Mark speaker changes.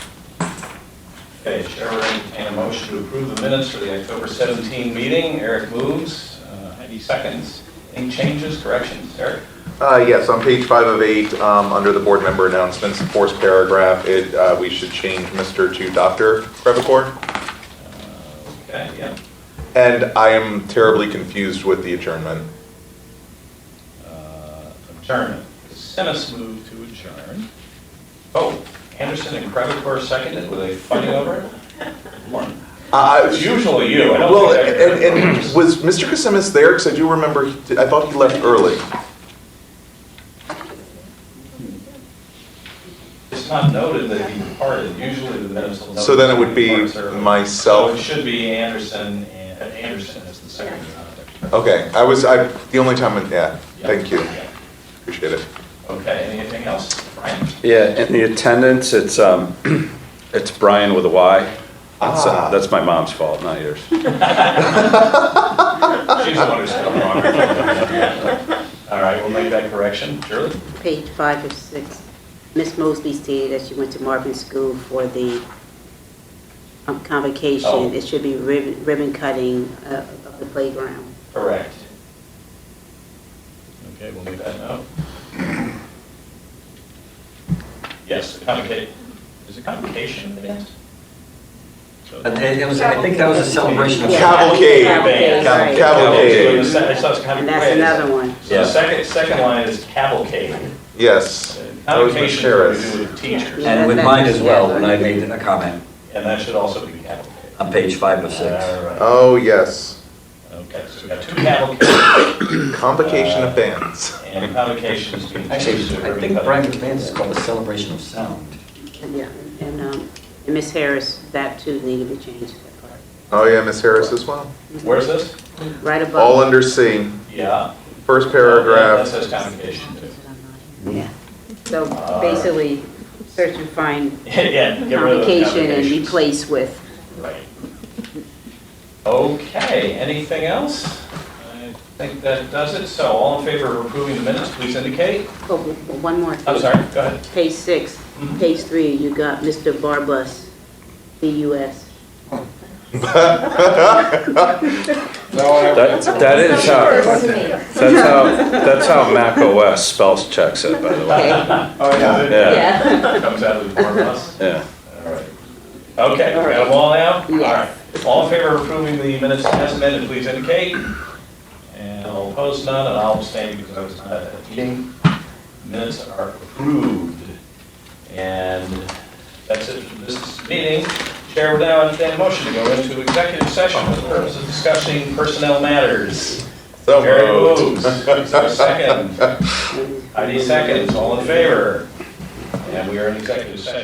Speaker 1: Okay, Chair, will entertain a motion to approve the minutes for the October 17 meeting. Eric moves, uh, Heidi seconds. Any changes, corrections, Eric?
Speaker 2: Uh, Yes, on page five of eight, um, under the board member announcements, the fourth paragraph, it, uh, we should change Mr. to Dr. Crevecore.
Speaker 1: Okay, yeah.
Speaker 2: And I am terribly confused with the adjournment.
Speaker 1: Uh, Adjournment. Sinis moved to adjourn. Oh, Anderson and Crevecore seconded, were they fighting over it? Lauren,
Speaker 2: Uh,
Speaker 1: It's usually you, I don't
Speaker 2: Well,
Speaker 1: think I-
Speaker 2: and, and was Mr. Casimis there? Because I do remember, he did- I thought he left early.
Speaker 1: It's not noted that he departed, usually the minutes will note.
Speaker 2: So then it would
Speaker 1: that he
Speaker 2: be
Speaker 1: departs early. So it
Speaker 2: myself.
Speaker 1: should be Anderson, and uh, Anderson is the Uh, secretary. not the-
Speaker 2: Okay, I was, I, the only time, yeah,
Speaker 1: Yeah,
Speaker 2: thank you,
Speaker 1: yeah.
Speaker 2: appreciate it.
Speaker 1: Okay, anything else? Brian?
Speaker 3: Yeah, in the attendance, it's, um, it's Brian with a Y. That's,
Speaker 2: Ah.
Speaker 3: uh, that's my mom's fault, not yours.
Speaker 1: She's the one who's still wrong. All right, we'll make that correction. Shirley?
Speaker 4: Page five of six, Miss Mosley stated that she went to Marvin School for the um,
Speaker 1: Oh.
Speaker 4: convocation. It should be ribbon ribbon cutting uh, of the playground.
Speaker 1: Correct. Okay, we'll make that note. Yes, the convocation, is it convocation that it is? So-
Speaker 5: And Uh, it was, I think that was a celebration of.
Speaker 4: Yeah.
Speaker 2: Cavalcade.
Speaker 4: Cavalcade, right.
Speaker 2: Cavalcade.
Speaker 1: So the se- so it's kind of-
Speaker 4: And that's another one.
Speaker 1: So the second, second line is cavalcade.
Speaker 2: Yes. That was
Speaker 1: Convocation
Speaker 2: Ms.
Speaker 1: is
Speaker 2: Harris.
Speaker 1: what we do with teachers,
Speaker 5: And with mine as well, when I made a comment
Speaker 1: and that should also be cavalcade.
Speaker 5: on page five of six.
Speaker 1: All right.
Speaker 2: Oh, yes,
Speaker 1: Okay, so we've got two cavalcades
Speaker 2: convocation of bands.
Speaker 1: and convocations being
Speaker 5: Actually,
Speaker 1: changed to
Speaker 5: I
Speaker 1: ribbon
Speaker 5: think Brian
Speaker 1: cutting.
Speaker 5: McMahon is called a celebration of sound.
Speaker 4: Yeah, and, um, and Miss Harris, that too needed to be changed, that part.
Speaker 2: Oh, yeah, Miss Harris as well.
Speaker 1: Where's this?
Speaker 4: Right above.
Speaker 2: All under C,
Speaker 1: Yeah.
Speaker 2: first
Speaker 1: That
Speaker 2: paragraph.
Speaker 1: says convocation too.
Speaker 4: Yeah. So basically, search and find
Speaker 1: Yeah, get rid of the
Speaker 4: convocation and
Speaker 1: convocations.
Speaker 4: replace with.
Speaker 1: Right. Okay, anything else? I think that does it, so all in favor of approving the minutes, please indicate.
Speaker 4: Oh, w- w- one more.
Speaker 1: I'm sorry, go ahead.
Speaker 4: Page six,
Speaker 1: Mhm.
Speaker 4: page three, you got Mr. Barbus, B-U-S.
Speaker 3: That, that is how, that's how, that's how Mac OS spells checks it, by the way.
Speaker 1: Oh,
Speaker 3: Yeah,
Speaker 1: Comes out of the board bus.
Speaker 3: yeah.
Speaker 1: All right. Okay, we got them all now? All
Speaker 4: Yes.
Speaker 1: right. All in favor of approving the minutes as amended, please indicate. And all opposed, none, and I'll abstain because I was not at that meeting. Minutes are approved. And that's it for this meeting. Chair would now entertain a motion to go into executive session for the purpose of discussing personnel matters.
Speaker 2: So
Speaker 1: Jerry
Speaker 2: moved.
Speaker 1: moves. Is there a second? Heidi seconds. All in favor? And we are in executive session.